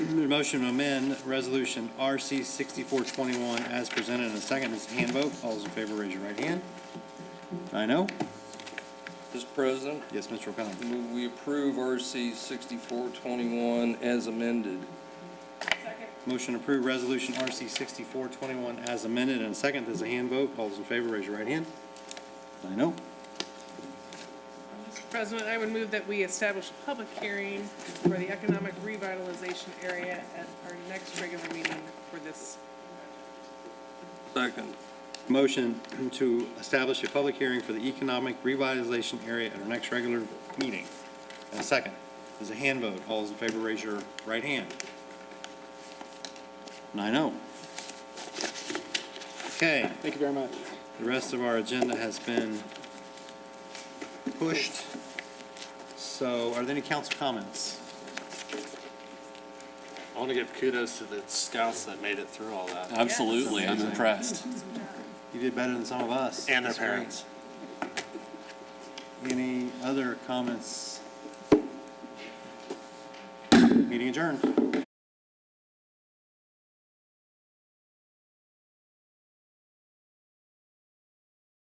motion to amend Resolution RC 6421 as presented in a second. It's a hand vote. All those in favor, raise your right hand. Nine oh. Mr. President, Yes, Mr. O'Connell. move we approve RC 6421 as amended. Motion to approve Resolution RC 6421 as amended and a second. There's a hand vote. All those in favor, raise your right hand. Nine oh. Mr. President, I would move that we establish a public hearing for the economic revitalization area at our next regular meeting for this. Second. Motion to establish a public hearing for the economic revitalization area at our next regular meeting. And a second, there's a hand vote. All those in favor, raise your right hand. Nine oh. Okay, Thank you very much. the rest of our agenda has been pushed. So are there any council comments? I want to give kudos to the scouts that made it through all that, Absolutely, I'm Amazing. impressed. You did better than some of us. and their That's great. parents. Any other comments? Meeting adjourned.